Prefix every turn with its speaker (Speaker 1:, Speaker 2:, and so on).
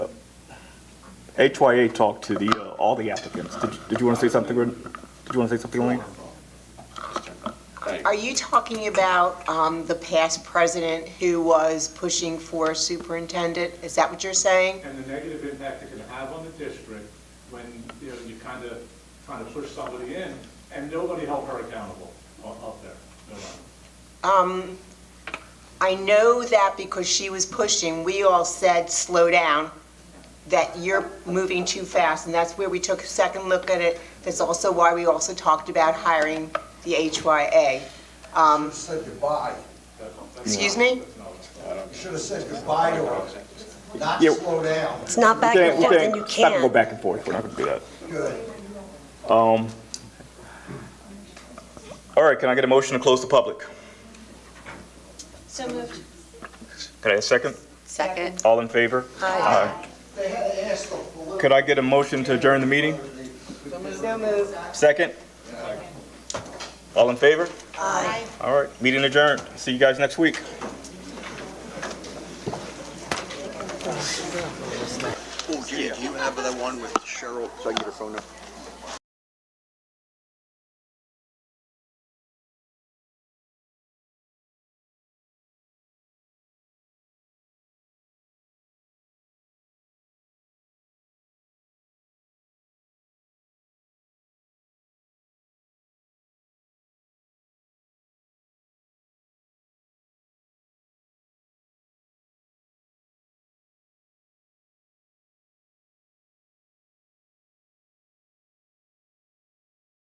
Speaker 1: HYA talked to the, uh, all the applicants. Did, did you want to say something, Ren- did you want to say something, Elaine?
Speaker 2: Are you talking about um, the past president who was pushing for superintendent? Is that what you're saying?
Speaker 3: and the negative impact it can have on the district when, you know, you kind of, trying to push somebody in, and nobody held her accountable u- up there, nobody.
Speaker 2: I know that because she was pushing, we all said, slow down, that you're moving too fast, and that's where we took a second look at it. That's also why we also talked about hiring the HYA.
Speaker 4: You said goodbye.
Speaker 2: Excuse me?
Speaker 4: You should have said goodbye to her, not
Speaker 1: Yeah.
Speaker 4: slow down.
Speaker 5: It's not back
Speaker 1: We
Speaker 5: and
Speaker 1: can't- we
Speaker 5: forth, and you
Speaker 1: It's not gonna go
Speaker 5: can't.
Speaker 1: back and forth, we're not going to do that.
Speaker 4: Good.
Speaker 1: All right, can I get a motion to close the public?
Speaker 6: So moved.
Speaker 1: Can I have a second?
Speaker 5: Second.
Speaker 1: All in favor? Aye.
Speaker 4: They had to ask the political.
Speaker 1: Could I get a motion to adjourn the meeting? Second? All in favor?
Speaker 6: Aye.
Speaker 1: All right, meeting adjourned. See you guys next week.
Speaker 7: Oh, yeah, do you have that one with Cheryl, so I can get her phone number?